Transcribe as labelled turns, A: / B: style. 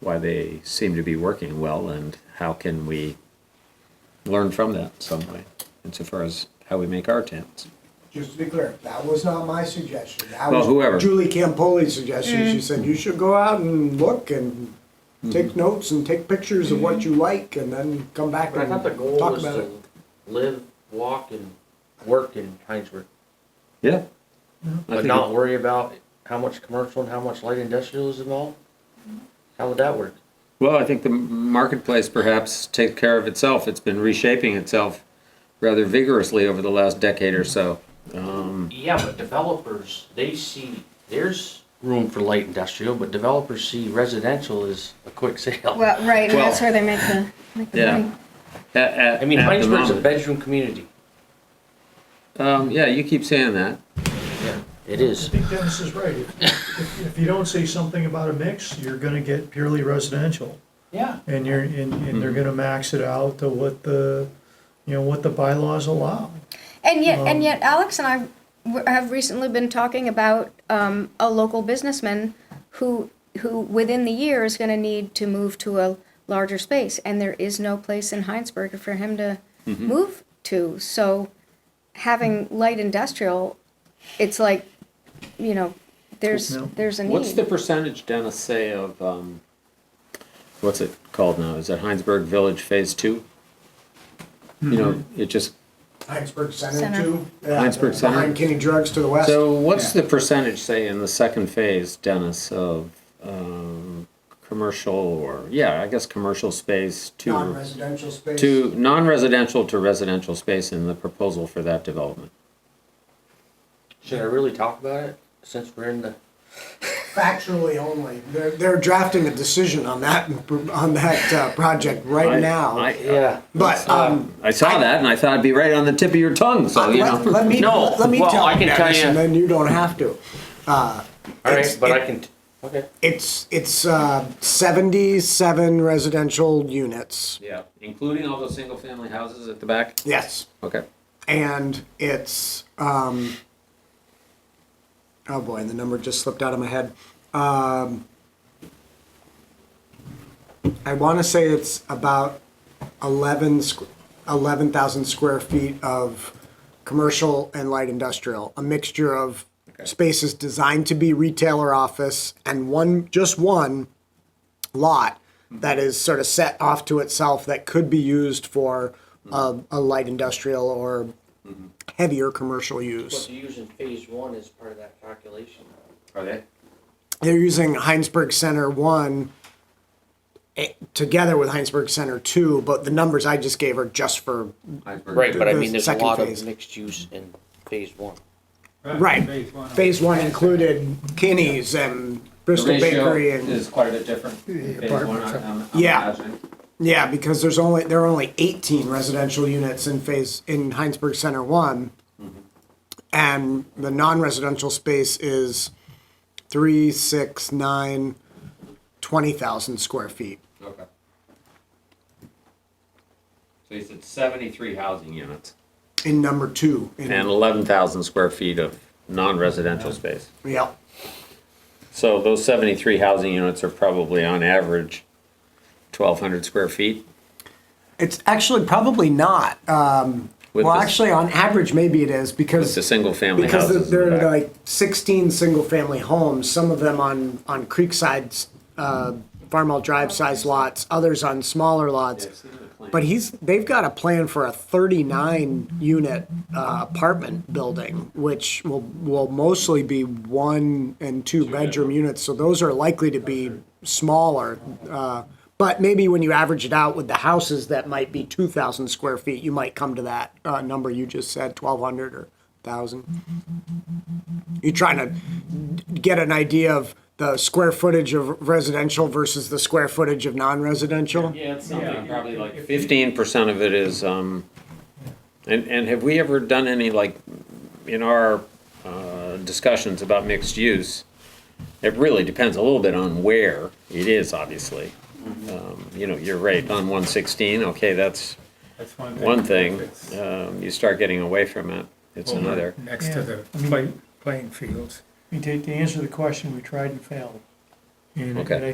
A: why they seem to be working well and how can we learn from that some way insofar as how we make our tents.
B: Just to be clear, that was not my suggestion. That
A: Well,
B: was
A: whoever.
B: Julie Campoli's suggestion.
C: Mm.
B: She said, you should go out and look and
A: Mm-hmm.
B: take notes and take pictures of what you like and then come back
C: Mm-hmm. But I
B: and
C: thought the goal
B: talk
C: was
B: about it.
C: to live, walk, and work in Heinsberg,
A: Yeah. I
C: but
A: think
C: not worry about how much commercial and how much light industrial is involved. How would that work?
A: Well, I think the marketplace perhaps takes care of itself. It's been reshaping itself rather vigorously over the last decade or so. Um,
C: Yeah, but developers, they see, there's room for light industrial, but developers see residential as a quick sale.
D: Well, right, and that's
A: Well-
D: where they make the, make the
A: Yeah.
D: money.
A: at, at,
C: I mean,
A: at the
C: Heinsberg's a
A: moment.
C: bedroom community.
A: Um, yeah, you keep saying that.
C: Yeah. It
E: I
C: is.
E: think Dennis is right. If- If if you don't say something about a mix, you're gonna get purely residential.
C: Yeah.
E: And you're, and, and they're gonna max it out to what the, you know, what the bylaws allow.
D: And yet,
E: Um,
D: and yet, Alex and I w- have recently been talking about um, a local businessman who who within the year is going to need to move to a larger space, and there is no place in Heinsberg for him to
A: Mm-hmm.
D: move to. So, having light industrial, it's like, you know, there's
E: No.
D: there's a need.
A: What's the percentage, Dennis, say of, um, what's it called now? Is it Heinsberg Village Phase Two? You know, it just,
B: Heinsberg Center
D: Center.
B: too. Yeah,
A: Heinsberg Center.
B: Behind Kenny Drugs to the west.
A: so what's the percentage, say, in the second phase, Dennis, of, um, commercial or, yeah, I guess commercial space to,
B: Non-residential space.
A: to non-residential to residential space in the proposal for that development?
C: Should I really talk about it since we're in the?
B: Factually only. They're, they're drafting a decision on that, on that uh, project right
A: I-
B: now.
A: I-
B: But, um,
A: I saw that and I thought it'd be right on the tip of your tongue, so, you know.
B: let, let me,
C: No,
B: let me
C: well,
B: tell
C: I can
B: you
C: tell you-
B: and then you don't have to. Uh,
C: All
B: It's-
C: right, but
B: it-
C: I can, t- okay.
B: It's, it's, uh, seventy-seven residential units,
A: Yeah, including all those single-family houses at the back?
B: yes.
A: Okay.
B: And it's, um, oh boy, and the number just slipped out of my head. Um, I wanna say it's about eleven squ- eleven thousand square feet of commercial and light industrial, a mixture of spaces designed to be retail or office and one, just one lot that is sort of set off to itself that could be used for uh, a light industrial or heavier commercial
C: What
B: use.
C: you use in phase one is part of that calculation.
A: Are they?
B: They're using Heinsberg Center 1 eh, together with Heinsberg Center 2, but the numbers I just gave are just for
C: Right, but I
B: The
C: mean, there's a
B: second
C: lot
B: phase.
C: of mixed use in phase one.
B: Right. phase 1 included Kinney's and Bristol Bakery and
A: quite a bit different.
B: apartments. Yeah. Yeah, because there's only there are only 18 residential units in phase in Heinsberg Center One, and the non-residential space is three, six, nine, twenty thousand square feet.
A: Okay. So you said seventy-three housing units.
B: In number two, in,
A: And eleven thousand square feet of non-residential space.
B: yeah,
A: So those seventy-three housing units are probably on average twelve hundred square feet?
B: it's actually probably not. Um,
A: With
B: well,
A: this-
B: actually, on average, maybe it is
A: With
B: because
A: the single-family
B: because
A: houses in
B: there
A: the
B: are
A: back.
B: like 16 single-family homes, some of them on on Creekside, uh, Farmall Drive size lots, others on smaller lots. But he's they've got a plan for a 39 unit uh, apartment building, which will will mostly be one and two bedroom units. So those are likely to be smaller. Uh, but maybe when you average it out with the houses that might be 2,000 square feet, you might come to that uh, number you just said, 1,200 or 1,000. You're trying to get an idea of the square footage of residential versus the square footage of non-residential.
A: Yeah, it's something, probably like fifteen percent of it is, um, and, and have we ever done any, like, in our, uh, discussions about mixed use? It really depends a little bit on where it is, obviously. Um, you know, you're right, on one sixteen, okay, that's
F: That's one thing.
A: one thing,
F: It's
A: um, you start getting away from it, it's
F: over
A: another.
F: Next to the
E: Yeah.
F: play- playing fields.
E: I mean, to, to answer the question, we tried and failed. And-
A: Okay.
E: And I